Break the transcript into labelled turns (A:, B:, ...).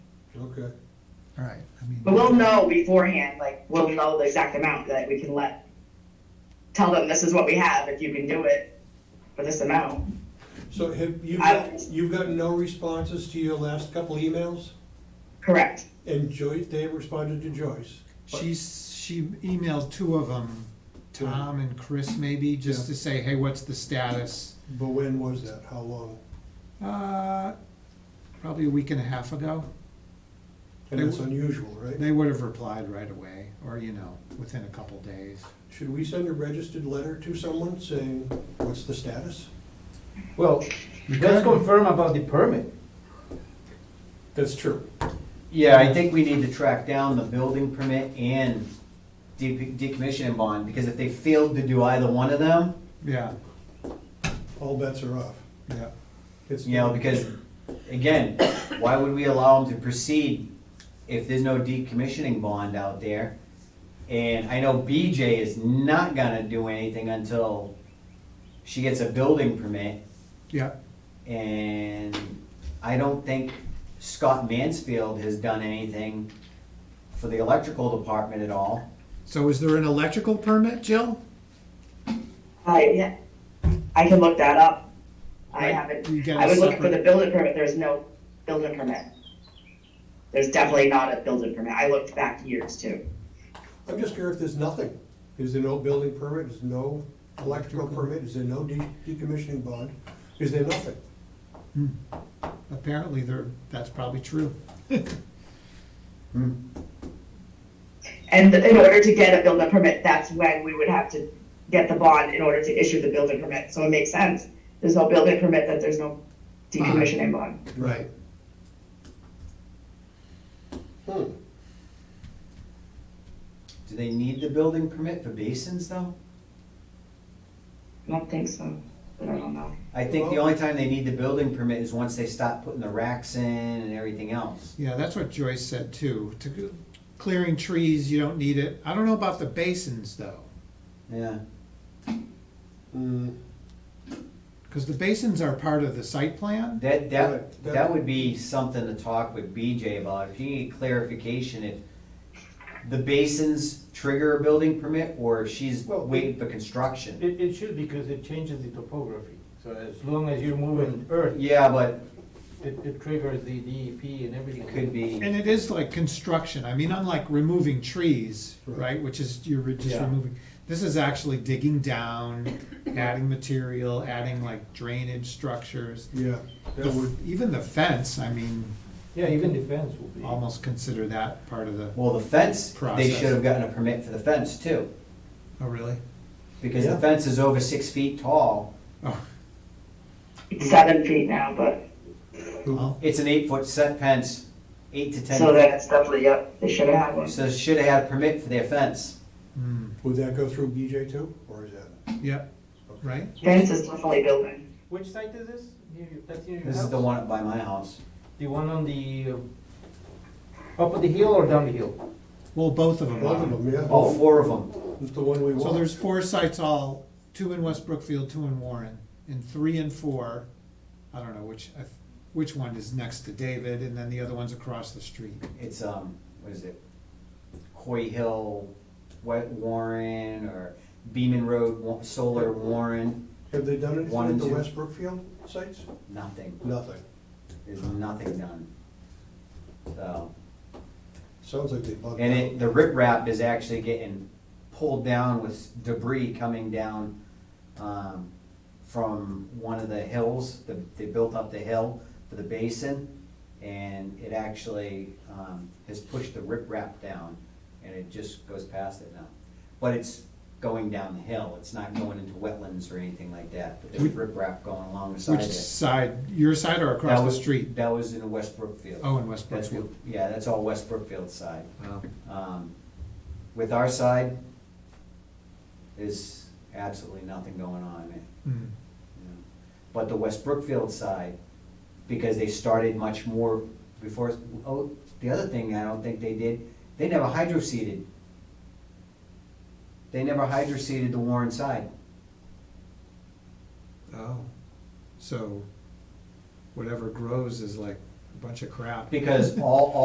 A: Okay,
B: All right, I mean,
C: But we'll know beforehand, like, we'll know the exact amount that we can let, tell them this is what we have, if you can do it for this amount.
A: so have, you've
C: I-
A: got, you've got no responses to your last couple emails?
C: Correct.
A: And Joyce, they responded to Joyce.
B: she's, she emailed two of them,
A: Two.
B: Tom and Chris maybe, just to say, hey, what's the status?
A: But when was that? How long?
B: Uh, probably a week and a half ago.
A: And
B: They-
A: that's unusual, right?
B: They would have replied right away, or, you know, within a couple days.
A: Should we send a registered letter to someone saying, what's the status?
D: Well, let's confirm about the permit.
A: That's true.
E: Yeah, I think we need to track down the building permit and de- decommissioning bond, because if they failed to do either one of them,
B: Yeah,
A: All bets are off.
B: yeah.
A: It's
E: you know, because, again, why would we allow them to proceed if there's no decommissioning bond out there? And I know BJ is not gonna do anything until she gets a building permit,
B: Yeah,
E: and I don't think Scott Mansfield has done anything for the electrical department at all.
B: so is there an electrical permit, Jill?
C: I, I can look that up. I
B: Right.
C: haven't,
B: You get
C: I
B: a
C: was looking for the
B: separate-
C: building permit, there's no building permit. There's definitely not a building permit, I looked back years too.
A: I'm just curious if there's nothing. Is there no building permit? Is there no electrical permit? Is there no de- decommissioning bond? Is there nothing?
B: Apparently there, that's probably true.
C: And in order to get a building permit, that's when we would have to get the bond in order to issue the building permit, so it makes sense. There's no building permit, that there's no decommissioning bond.
A: Right. Hmm,
E: Do they need the building permit for basins though?
C: I don't think so, but I don't know.
E: I think the
A: Well-
E: only time they need the building permit is once they stop putting the racks in and everything else.
B: Yeah, that's what Joyce said too. To go- clearing trees, you don't need it. I don't know about the basins though,
E: Yeah,
A: hmm.
B: because the basins are part of the site plan.
E: that,
A: Right,
E: that,
A: that-
E: that would be something to talk with BJ about, if you need clarification, if the basins trigger a building permit, or if she's
D: Well,
E: waiting for construction.
D: It, it should because it changes the topography. So as long as you're moving earth,
E: Yeah, but
D: it, it triggers the DEP and everything.
E: it could be,
B: And it is like construction. I mean, unlike removing trees,
A: Right.
B: right, which is, you're re- just
D: Yeah.
B: removing. This is actually digging down, adding material, adding like drainage structures.
A: yeah,
B: The
A: that
B: f-
A: would,
B: Even the fence, I mean,
D: Yeah, even the fence will be.
E: Um,
B: almost consider that part of the,
E: well, the fence, they
B: Process.
E: should have gotten a permit for the fence too,
B: oh, really?
E: because the
D: Yeah.
E: fence is over six feet tall,
B: Oh,
C: It's seven feet now, but,
B: well,
E: it's an eight-foot set fence, eight to ten.
C: so then it's definitely, yep, they should have had one.
E: So should have had a permit for their fence.
B: hmm,
A: would that go through BJ too, or is that?
B: yeah, right?
C: Fence is definitely building.
D: Which site is this? Near you- That's near your house?
E: This is the one up by my house.
D: The one on the, uh, up the hill or down the hill?
B: Well, both of them
A: Both of
B: are.
A: them, yeah.
E: All Oh, four of them.
A: It's the one we want.
B: So there's four sites all, two in West Brookfield, two in Warren, and three and four, I don't know which, I th- which one is next to David, and then the other one's across the street.
E: It's, um, what is it? Coy Hill, Wet Warren, or Beaman Road, Wa- Solar Warren,
A: Have they done anything
E: One
A: at
E: and
A: the
E: two.
A: West Brookfield sites?
E: nothing.
A: Nothing.
E: There's nothing done. So,
A: Sounds like they bugged
E: and
A: out.
E: it, the riprap is actually getting pulled down with debris coming down, um, from one of the hills, the, they built up the hill for the basin, and it actually, um, has pushed the riprap down, and it just goes past it now. But it's going down the hill, it's not going into wetlands or anything like that, but there's riprap going along the side
B: Which
E: of it.
B: side, your side or across
E: That
B: the
E: was-
B: street?
E: That was in West Brookfield.
B: Oh, in West
E: That's what-
B: Brookfield.
E: Yeah, that's all West Brookfield side.
B: Wow.
E: Um, With our side, there's absolutely nothing going on. eh,
B: Hmm.
E: you know. But the West Brookfield side, because they started much more before, oh, the other thing I don't think they did, they never hydroseeded. They never hydroseeded the Warren side.
B: Oh, so whatever grows is like a bunch of crap.
E: Because all,